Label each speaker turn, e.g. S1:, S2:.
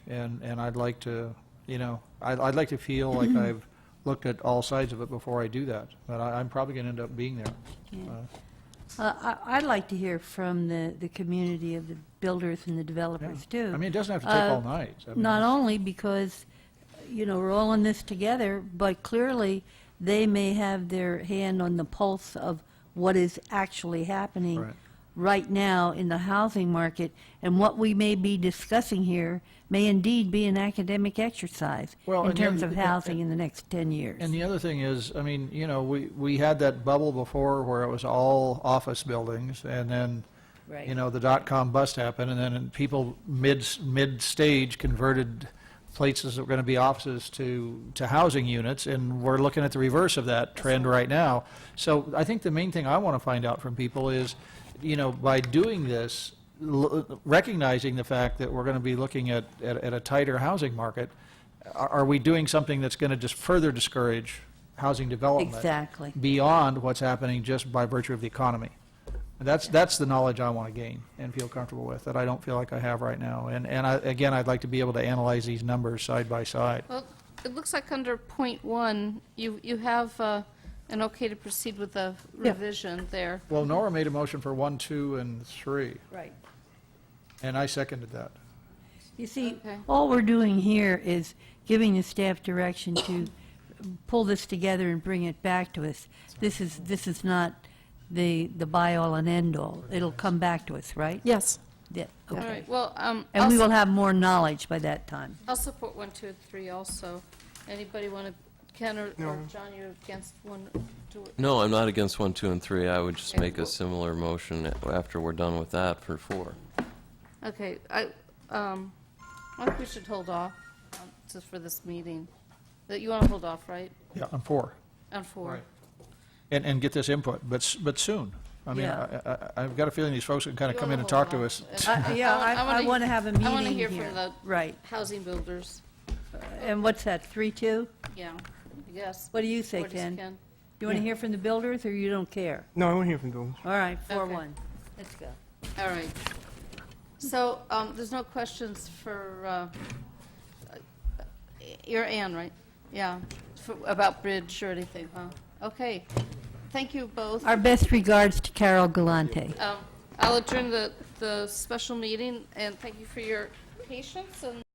S1: and, and I'd like to, you know, I'd, I'd like to feel like I've looked at all sides of it before I do that, but I, I'm probably going to end up being there.
S2: Yeah.
S1: Uh,
S2: Uh, I- I'd like to hear from the, the community of the builders and the developers,
S1: yeah.
S2: too.
S1: I mean, it doesn't have to take
S2: Uh,
S1: all night. I mean,
S2: Not only because, you know, we're all in this together, but clearly, they may have their hand on the pulse of what is actually happening
S1: Right.
S2: right now in the housing market, and what we may be discussing here may indeed be an academic exercise
S1: Well,
S2: in
S1: and then-
S2: terms of housing in the next 10 years.
S1: And the other thing is, I mean, you know, we, we had that bubble before where it was all office buildings, and then,
S2: Right.
S1: you know, the dot-com bust happened, and then people mid, mid-stage converted places that were going to be offices to, to housing units, and we're looking at the reverse of that trend right now. So I think the main thing I want to find out from people is, you know, by doing this, l- recognizing the fact that we're going to be looking at, at at a tighter housing market, are are we doing something that's going to just further discourage housing development?
S2: Exactly.
S1: Beyond what's happening just by virtue of the economy? And that's, that's the knowledge I want to gain and feel comfortable with, that I don't feel like I have right now. And, and I, again, I'd like to be able to analyze these numbers side by side.
S3: Well, it looks like under point one, you, you have uh, an okay to proceed with the revision there.
S1: Well, Nora made a motion for one, two, and three,
S2: Right.
S1: and I seconded that.
S2: You see,
S3: Okay.
S2: all we're doing here is giving the staff direction to pull this together and bring it back to us. This is, this is not the, the by-all and end-all. It'll come back to us, right?
S4: Yes.
S2: Yeah,
S3: All
S2: okay.
S3: right, well, um, I'll,
S2: And we will
S3: su-
S2: have more knowledge by that time.
S3: I'll support one, two, and three also. Anybody want to, Ken or, or John, you're against one, two,
S5: No, I'm not against one, two, and three. I would just
S3: Okay.
S5: make a similar motion after we're done with that for four.
S3: okay, I, um, I think we should hold off um, just for this meeting. That you want to hold off, right,
S1: Yeah, on four.
S3: on four?
S1: Right. And, and get this input, but, s- but soon. I mean, I,
S2: Yeah.
S1: I, I've got a feeling these folks can kind of
S3: You
S1: come in
S3: wanna
S1: and talk
S3: hold
S1: to
S3: off. Uh,
S1: us.
S2: I- Yeah, I, I
S3: wanna-
S2: want to have a meeting
S3: I
S2: here.
S3: want to hear from the
S2: Right.
S3: housing builders,
S2: And what's that, three-two?
S3: yeah, I guess.
S2: What do you say,
S3: Or just
S2: Ken? You want to hear from the builders, or you don't care?
S4: No, I want to hear from Bill.
S2: All right,
S3: Okay.
S2: four-one. Let's go.
S3: All right. So um, there's no questions for, uh, uh, you're Ann, right? Yeah, For- about bridge or anything, huh? Okay. Thank you both.
S2: Our best regards to Carol Galante.
S3: Um, I'll adjourn the the special meeting, and thank you for your patience and...